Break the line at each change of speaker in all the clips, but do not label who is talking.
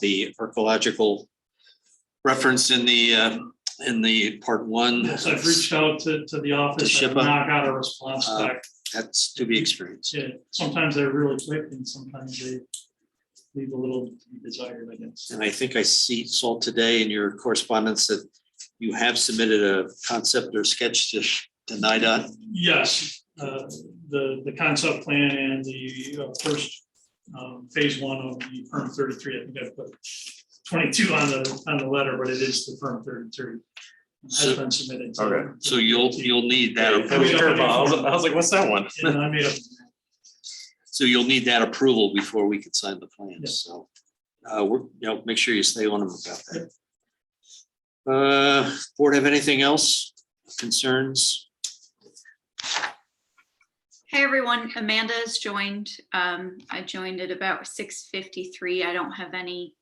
the archaeological reference in the, uh, in the part one.
Yes, I've reached out to, to the office,
To
I've
Shipa.
not got a response
Uh,
back.
That's to be experienced.
Yeah, Sometimes they're really quick and sometimes they leave a little desired, I guess.
And I think I see, saw today in your correspondence that you have submitted a concept or sketch to to NIDOT.
Yes, uh, the, the concept plan and the uh, first um, phase one of the firm thirty-three, I think I put twenty-two on the, on the letter, but it is the firm thirty-three. Has
So-
been submitted. to-
Okay.
So you'll, you'll need that.
That was a
approval.
curveball. I was, I was like, what's that one?
And I made a,
So you'll need that approval before we can sign the plans, so. Uh, we're, you know, make sure you stay on them about that. Uh, board have anything else, concerns?
Hey, everyone. Amanda has joined. Um, I joined at about six fifty-three. I don't have any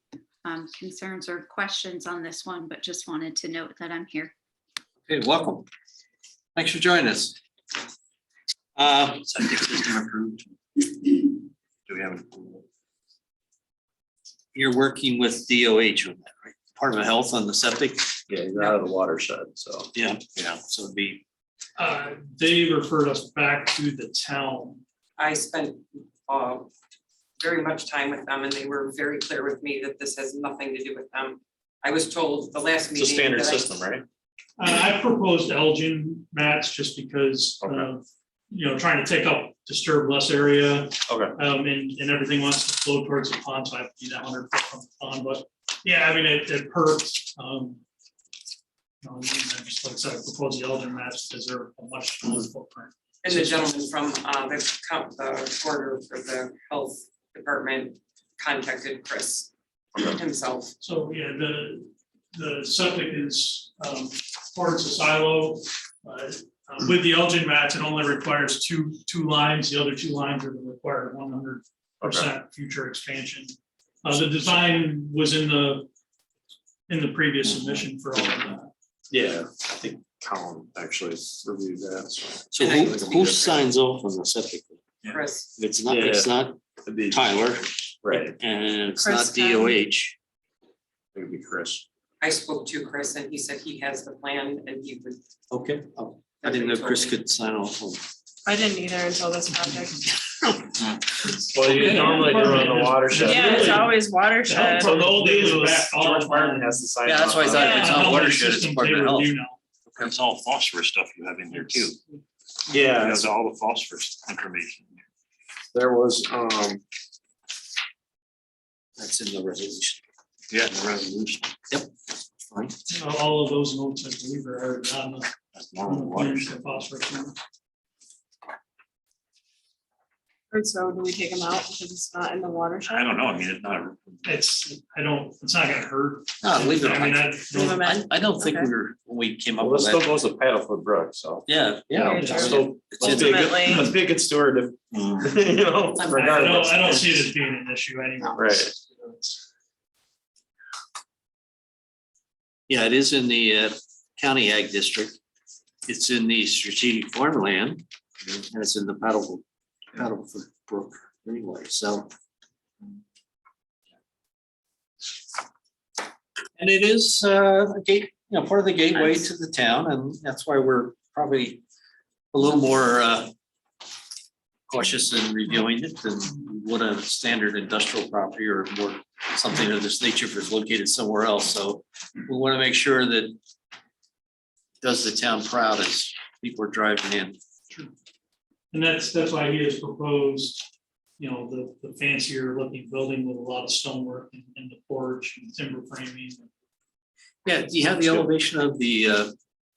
um, concerns or questions on this one, but just wanted to note that I'm here.
Hey, welcome. Thanks for joining us. Uh. Septic system approved. Do we have? an approval? You're working with DOH on that, right? Department of Health on the septic?
Yeah, he's out of the watershed, so.
Yeah, yeah, so it'd be,
uh, they referred us back to the town
I spent uh, very much time with them and they were very clear with me that this has nothing to do with them. I was told the
It's
last
a
meeting.
standard
that I-
system, right?
Uh, I proposed Elgin mats just because
Okay.
of, you know, trying to take up disturbed less area.
Okay.
Um, and, and everything wants to flow towards the pond, so I have to be that hundred foot from the pond, but, yeah, I mean, it, it perks, um. you know, and I Just like I said, I proposed the Elgin mats because they're a much smaller footprint.
And the gentleman from uh, the com- the quarter for the health department contacted Chris
Okay.
himself.
So, yeah, the, the septic is, um, towards the silo. uh, um, With the Elgin mats, it only requires two, two lines, the other two lines are the required one hundred
Okay.
percent future expansion. Uh, the design was in the, in the previous submission for all of that.
Yeah, I think Colin actually reviewed that. so.
so who, who signs off on the septic?
Yeah.
Chris,
If It's not, it's not
It'd be-
Tyler.
Right, it
And it's not
Chris
DOH.
would be Chris.
I spoke to Chris and he said he has the plan and he would.
Okay. Oh, I didn't know Chris could sign off on.
I didn't either until this project.
Well, you normally do it on the watershed.
Yeah, it's
really-
always watershed.
For the old days, it was back all-
George Martin has to sign.
Yeah, that's why I
off
thought if it's
on it.
not
Yeah,
watershed, it's
they
Department of Health.
review now.
It's all phosphorus stuff you have in here too.
Yeah,
That's all the phosphorus information.
there was, um,
That's in the resolution.
Yeah, the resolution.
Fine.
Uh, All of those notes, I believe, are on the-
That's
on
normal
the plans
watershed.
for phosphorus.
And so do we take them out because it's not in the watershed?
I don't know. I mean, it's not.
It's, I don't, it's not gonna hurt.
No, leave it
I mean,
on.
I
Leave
don't,
'em
I,
in?
I don't think we
Okay.
were, when we came up
well, it
with
still
that.
goes to Paddlefoot Brook, so.
Yeah, yeah.
Very
it's
true.
still-
It's
Let's
in-
be a good,
Ultimately-
let's be a good steward of,
Uh,
you know,
I don't,
regardless.
I don't see it as being an issue anyway.
Right.
Yeah, it is in the uh, county ag district. It's in the strategic farmland and it's in the paddle, paddle brook anyway, so. And it is uh, a gate, you know, part of the gateway to the town and that's why we're probably a little more uh, cautious in reviewing it than what a standard industrial property or more something of this nature if it's located somewhere else. So we want to make sure that does the town proud as people are driving in.
And that's, that's why he has proposed, you know, the, the fancier looking building with a lot of stonework and, and the porch and timber framing.
Yeah, do you have the elevation of the, uh,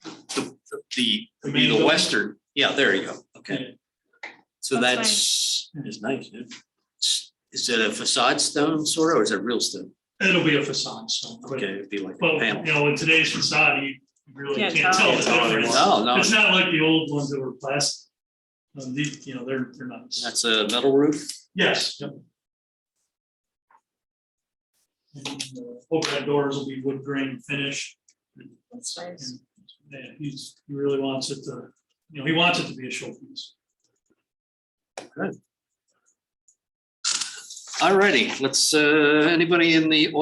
the, the,
The main
the
building?
western? Yeah, there you go. Okay, so that's,
That's
is nice. yeah. S- Is it a facade stone sort of, or is it real stone?
It'll be a facade, so. but-
Okay, it'd be like a
But,
panel.
you know, in today's facade, you really
Can't
can't
tell.
tell the
Can't tell
difference.
No, no,
It's not like the old ones that were plastic. Um, these, you know, they're, they're not.
that's a metal roof.
Yes. yep. And uh, overhead doors will be wood grain finish.
That's nice.
And yeah, he's, he really wants it to, you know, he wants it to be a showpiece.
All righty, let's, uh, anybody in the